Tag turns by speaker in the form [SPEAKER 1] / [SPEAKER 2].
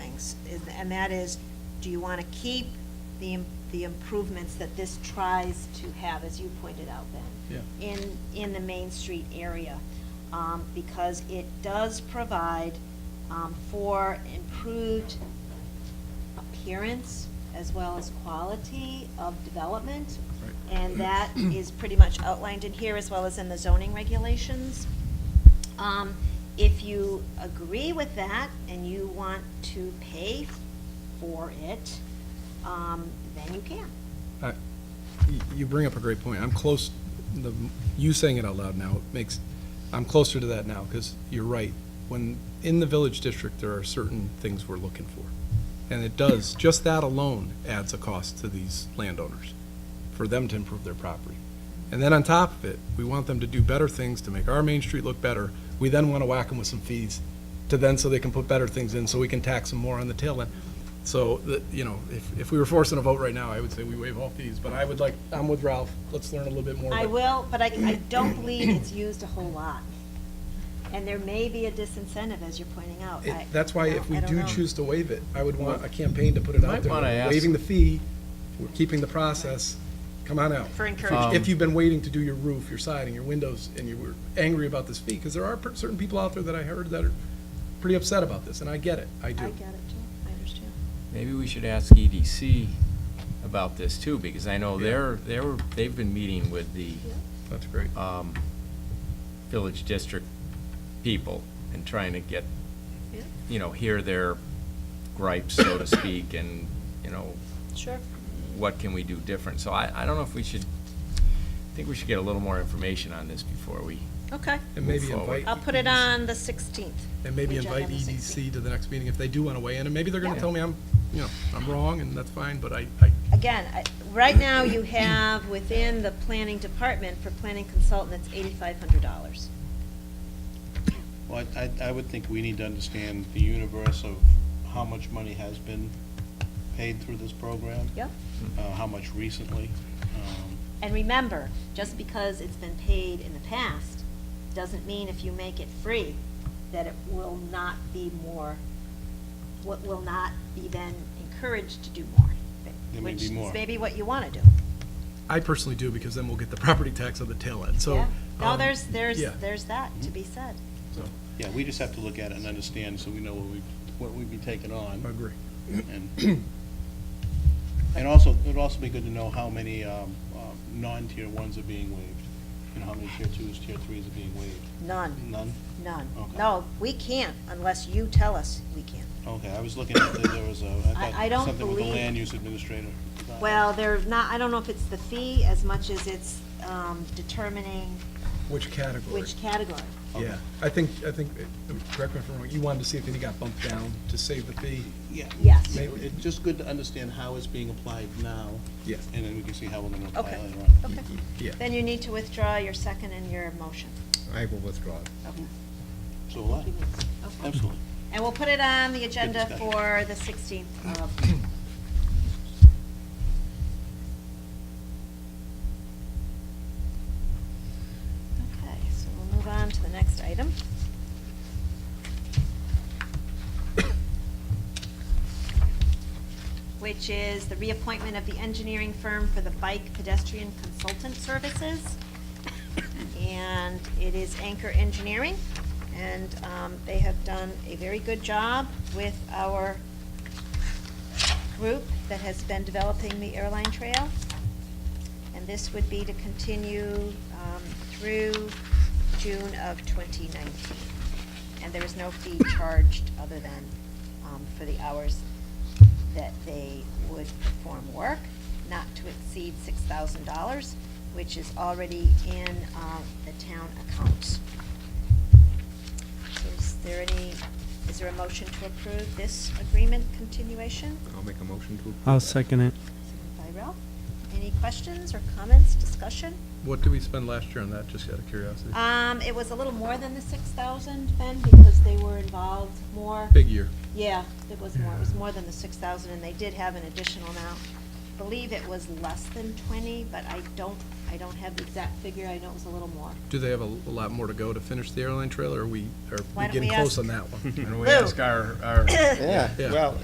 [SPEAKER 1] and that is, do you want to keep the, im- the improvements that this tries to have, as you pointed out, Ben? In, in the Main Street area, um, because it does provide, um, for improved appearance as well as quality of development.
[SPEAKER 2] Right.
[SPEAKER 1] And that is pretty much outlined in here as well as in the zoning regulations. Um, If you agree with that and you want to pay for it, um, then you can.
[SPEAKER 2] I- y- You bring up a great point. I'm close, the, you saying it out loud now makes, I'm closer to that now, because you're right. When, in the village district, there are certain things we're looking for. And it does, just that alone adds a cost to these landowners, for them to improve their property. And then on top of it, we want them to do better things to make our Main Street look better. We then want to whack them with some fees to then, so they can put better things in, so we can tax them more on the tail end. So, the- you know, if, if we were forcing a vote right now, I would say we waive all fees, but I would like, I'm with Ralph, let's learn a little bit more.
[SPEAKER 1] I
[SPEAKER 2] but-
[SPEAKER 1] will, but I, I don't believe it's used a whole lot. And there may be a disincentive, as you're pointing out.
[SPEAKER 2] It-
[SPEAKER 1] I-
[SPEAKER 2] That's why if
[SPEAKER 1] I
[SPEAKER 2] we
[SPEAKER 1] don't
[SPEAKER 2] do
[SPEAKER 1] know.
[SPEAKER 2] choose to waive it, I would want a campaign to put it out
[SPEAKER 3] Might
[SPEAKER 2] there.
[SPEAKER 3] wanna
[SPEAKER 2] We're
[SPEAKER 3] ask-
[SPEAKER 2] Waiving the fee, we're keeping the process, come on out.
[SPEAKER 1] For
[SPEAKER 2] If-
[SPEAKER 1] encouragement.
[SPEAKER 2] If you've been waiting to do your roof, your siding, your windows, and you were angry about this fee, because there are per- certain people out there that I heard that are pretty upset about this, and I get it, I
[SPEAKER 1] I
[SPEAKER 2] do.
[SPEAKER 1] get it too, I understand.
[SPEAKER 3] Maybe we should ask EDC about this too, because I know they're, they're, they've been meeting with the
[SPEAKER 2] That's great.
[SPEAKER 3] um, village district people and trying to get,
[SPEAKER 1] Yeah.
[SPEAKER 3] you know, hear their gripes, so to speak, and, you know,
[SPEAKER 1] Sure.
[SPEAKER 3] what can we do different? So I, I don't know if we should, I think we should get a little more information on this before we,
[SPEAKER 1] Okay.
[SPEAKER 2] And maybe
[SPEAKER 3] Move forward.
[SPEAKER 2] invite.
[SPEAKER 1] I'll put it on the 16th.
[SPEAKER 2] And maybe
[SPEAKER 1] Agenda
[SPEAKER 2] invite
[SPEAKER 1] on the 16th.
[SPEAKER 2] EDC to the next meeting if they do want to weigh in, and maybe they're going to
[SPEAKER 1] Yeah.
[SPEAKER 2] tell me I'm, you know, I'm wrong, and that's fine, but I, I,
[SPEAKER 1] Again, I- right now, you have within the planning department for planning consultant, it's $8,500.
[SPEAKER 4] Well, I, I- I would think we need to understand the universe of how much money has been paid through this program.
[SPEAKER 1] Yep.
[SPEAKER 4] Uh, how much recently. Um,
[SPEAKER 1] And remember, just because it's been paid in the past, doesn't mean if you make it free, that it will not be more, what will not be then encouraged to do more.
[SPEAKER 4] There may be more.
[SPEAKER 1] Which is maybe what you want to do.
[SPEAKER 2] I personally do, because then we'll get the property tax on the tail end, so.
[SPEAKER 1] Yeah. No,
[SPEAKER 2] um,
[SPEAKER 1] there's, there's,
[SPEAKER 2] yeah.
[SPEAKER 1] there's that
[SPEAKER 4] Mm-hmm.
[SPEAKER 1] to be said.
[SPEAKER 2] So,
[SPEAKER 4] Yeah, we just have to look at it and understand so we know what we, what we'd be taking
[SPEAKER 2] I
[SPEAKER 4] on.
[SPEAKER 2] agree.
[SPEAKER 4] And and also, it'd also be good to know how many, um, um, non-tier ones are being waived and how many tier twos, tier threes are being waived.
[SPEAKER 1] None,
[SPEAKER 4] None?
[SPEAKER 1] none.
[SPEAKER 4] Okay.
[SPEAKER 1] No, we can't unless you tell us we can.
[SPEAKER 4] Okay, I was looking at, the- there was a,
[SPEAKER 1] I-
[SPEAKER 4] I
[SPEAKER 1] I don't
[SPEAKER 4] thought something with the
[SPEAKER 1] believe-
[SPEAKER 4] land use administrator.
[SPEAKER 1] Well, there's not, I don't know if it's the fee as much as it's um, determining
[SPEAKER 2] Which category?
[SPEAKER 1] which category.
[SPEAKER 2] Yeah, I think, I think, uh, correct me if I'm wrong, you wanted to see if any got bumped down to save the fee?
[SPEAKER 4] Yeah.
[SPEAKER 1] Yes.
[SPEAKER 4] It- It's just good to understand how it's being applied now.
[SPEAKER 2] Yeah.
[SPEAKER 4] And then we can see how we're gonna apply
[SPEAKER 1] Okay,
[SPEAKER 4] later on.
[SPEAKER 1] okay.
[SPEAKER 2] Yeah.
[SPEAKER 1] Then you need to withdraw your second and your motion.
[SPEAKER 5] I will withdraw.
[SPEAKER 1] Okay.
[SPEAKER 4] So will I.
[SPEAKER 1] Okay.
[SPEAKER 4] Absolutely.
[SPEAKER 1] And we'll put it on the agenda
[SPEAKER 4] discussion.
[SPEAKER 1] for the 16th of, okay, so we'll move on to the next item. Which is the reappointment of the engineering firm for the bike pedestrian consultant services. And it is Anchor Engineering, and um, they have done a very good job with our group that has been developing the airline trail. And this would be to continue um, through June of 2019. And there is no fee charged other than um, for the hours that they would perform work, not to exceed $6,000, which is already in uh, the town account. So Is there any, is there a motion to approve this agreement continuation?
[SPEAKER 5] I'll make a motion to. approve
[SPEAKER 6] I'll
[SPEAKER 5] that.
[SPEAKER 6] second it.
[SPEAKER 1] Seconded by Ralph. Any questions or comments, discussion?
[SPEAKER 2] What did we spend last year on that, just out of curiosity?
[SPEAKER 1] Um, it was a little more than the six thousand, Ben, because they were involved more.
[SPEAKER 2] Big year.
[SPEAKER 1] Yeah, it was more, it was more than the six thousand, and they did have an additional amount. Believe it was less than twenty, but I don't, I don't have the exact figure, I know it was a little more.
[SPEAKER 2] Do they have a a lot more to go to finish the airline trail, or are we, are
[SPEAKER 1] Why
[SPEAKER 2] we
[SPEAKER 1] don't
[SPEAKER 2] getting
[SPEAKER 1] we
[SPEAKER 2] close
[SPEAKER 1] ask-
[SPEAKER 2] on that one?
[SPEAKER 3] and
[SPEAKER 1] we
[SPEAKER 3] we
[SPEAKER 1] Lou. ask
[SPEAKER 3] ask our, our
[SPEAKER 5] Yeah,
[SPEAKER 2] Yeah.
[SPEAKER 5] well,